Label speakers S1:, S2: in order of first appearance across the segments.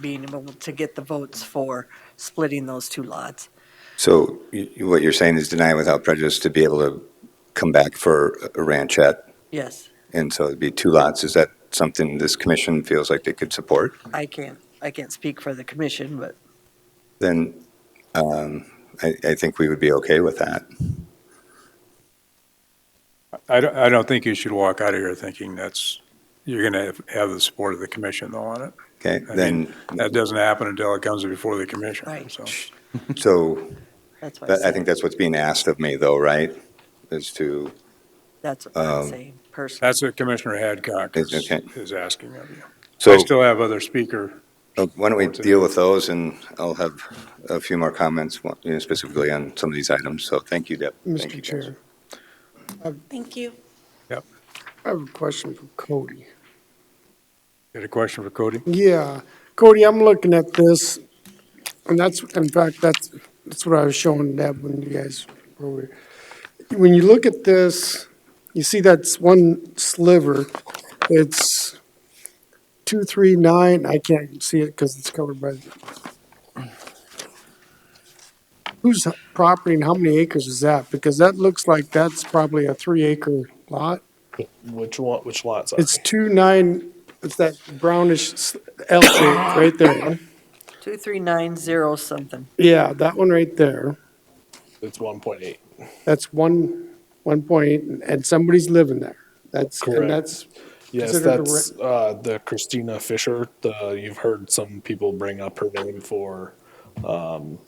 S1: being able to get the votes for splitting those two lots.
S2: So you- you- what you're saying is deny without prejudice to be able to come back for a ranchette,
S1: Yes,
S2: and so it'd be two lots. Is that something this commission feels like they could support?
S1: I can't, I can't speak for the commission, but
S2: Then um, I I think we would be okay with that.
S3: I don't, I don't think you should walk out of here thinking that's, you're going to have- have the support of the commission though on it.
S2: Okay,
S3: I
S2: then,
S3: That doesn't happen until it comes before the commission.
S1: Right.
S3: so.
S2: so
S1: that's what I
S2: that- I
S1: said.
S2: think that's what's being asked of me, though, right? Is to,
S1: That's what I'm
S2: um,
S1: saying personally.
S3: That's what Commissioner Hadcock is,
S2: It's okay.
S3: is asking of you.
S2: so
S3: I still have other speaker.
S2: uh, why don't we deal with those, and I'll have a few more comments one- you know, specifically on some of these items. So thank you, Deb. Thank you,
S4: Mr.
S2: guys.
S4: Chair,
S5: Thank you.
S4: I have a question for Cody.
S3: Got a question for Cody?
S4: Yeah, Cody, I'm looking at this, and that's, in fact, that's, that's what I was showing Deb when you guys were over. here. When you look at this, you see that's one sliver, it's two, three, nine, I can't see it because it's covered by. Whose property and how many acres is that? Because that looks like that's probably a three acre lot.
S6: Which one? Which lots?
S4: It's two nine, it's that brownish s- L shape right there.
S1: Two, three, nine, zero, something.
S4: Yeah, that one right there.
S6: it's one point eight.
S4: That's one, one point, and somebody's living there. That's,
S6: Correct.
S4: and that's,
S6: Yes,
S4: Considered a re-
S6: that's uh, the Christina Fisher. The you've heard some people bring up her name for um,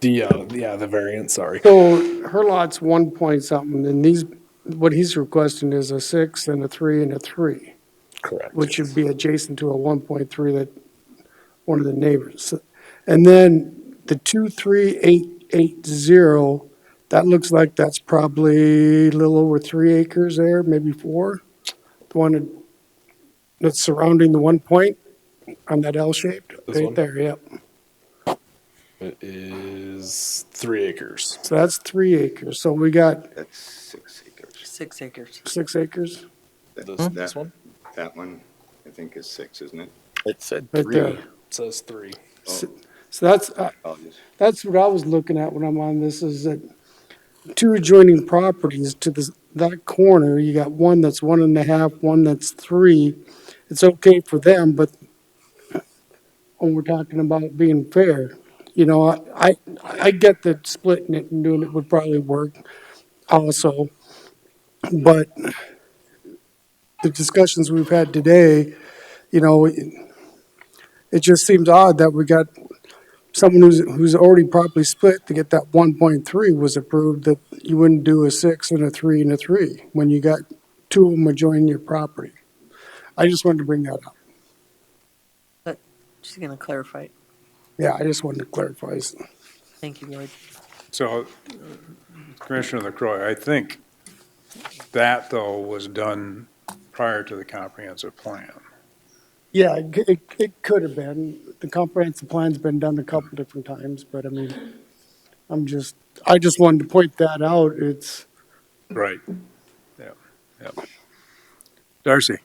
S6: the uh, yeah the variant. Sorry,
S4: so her lot's one point something, and these, what he's requesting is a six and a three and a three,
S6: correct.
S4: which would be adjacent to a one point three that, one of the neighbors. And then the two, three, eight, eight, zero, that looks like that's probably a little over three acres there, maybe four. The one that's surrounding the one point on that L shaped,
S6: This
S4: right
S6: one?
S4: there, yep.
S6: It is three acres.
S4: So that's three acres. So we got
S2: That's six acres.
S1: Six acres.
S4: six acres
S2: That-
S7: Hmm?
S6: This,
S2: that-
S6: this one
S2: That one, I think, is six, isn't it?
S7: It said
S4: right there.
S7: three.
S6: says three.
S4: S- So that's, uh,
S2: Apologies.
S4: that's what I was looking at when I'm on this is that two adjoining properties to this, that corner, you got one that's one and a half, one that's three. It's okay for them, but when we're talking about being fair, you know, I, I, I get that splitting it and doing it would probably work also. But the discussions we've had today, you know, it it just seems odd that we got someone who's, who's already properly split to get that one point three was approved, that you wouldn't do a six and a three and a three when you got two of them adjoining your property. I just wanted to bring that up.
S1: She's going to clarify. it.
S4: Yeah, I just wanted to clarify.
S1: Thank you, Lloyd.
S3: So uh, Commissioner LaCroy, I think that though was done prior to the comprehensive plan.
S4: Yeah, it, c- it, it could have been. The comprehensive plan's been done a couple different times, but I mean, I'm just, I just wanted to point that out. It's,
S3: Right. Yeah, yeah. Darcy?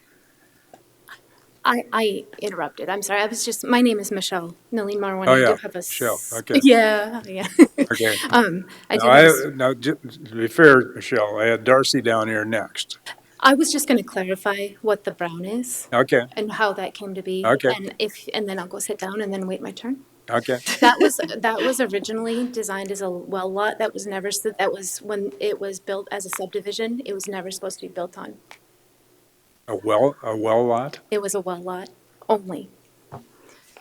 S8: I, I interrupted. I'm sorry. I was just, my name is Michelle Nalin Marwan.
S3: Oh,
S8: I
S3: yeah.
S8: do have a. s-
S3: Michelle. Okay.
S8: Yeah, yeah.
S3: Okay.
S8: Um, I do.
S3: Now,
S8: have a s-
S3: I, now, ju- to be fair, Michelle, I had Darcy down here next.
S8: I was just going to clarify what the brown is
S3: Okay,
S8: and how that came to be.
S3: Okay.
S8: And if, and then I'll go sit down and then wait my turn.
S3: okay.
S8: That was, that was originally designed as a well lot. That was never, s- that was when it was built as a subdivision. It was never supposed to be built on.
S3: A well, a well lot?
S8: It was a well lot only.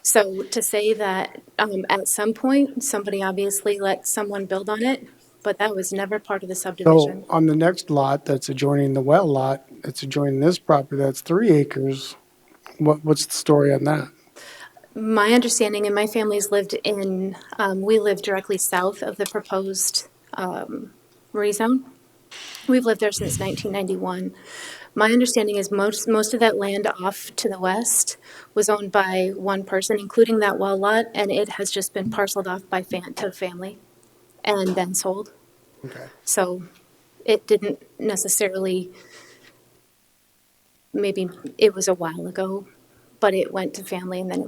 S8: So to say that um, at some point, somebody obviously let someone build on it, but that was never part of the
S4: so
S8: subdivision.
S4: on the next lot that's adjoining the well lot, it's adjoining this property that's three acres. What, what's the story on that?
S8: My understanding, and my family's lived in, um, we live directly south of the proposed um, rezone. We've lived there since 1991. My understanding is most, most of that land off to the west was owned by one person, including that well lot, and it has just been parceled off by fan, to family and then sold. So it didn't necessarily, maybe it was a while ago, but it went to family and then it